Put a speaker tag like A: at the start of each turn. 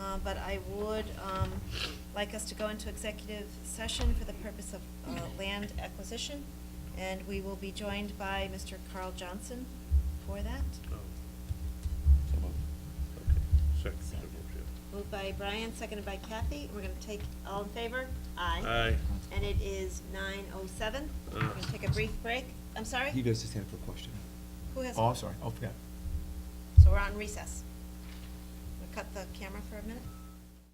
A: Uh, but I would um, like us to go into executive session for the purpose of uh, land acquisition, and we will be joined by Mr. Carl Johnson for that.
B: Oh,
C: So moved.
B: okay. Second,
A: So-
B: the motion.
A: Moved by Brian, seconded by Kathy. We're going to take, all in favor?
B: Aye.
A: And it is nine oh seven. We're
B: Uh.
A: going to take a brief break. I'm sorry?
C: He goes to stand for a question.
A: Who has?
C: Oh, I'm sorry, I forgot.
A: So we're on recess. We'll cut the camera for a minute.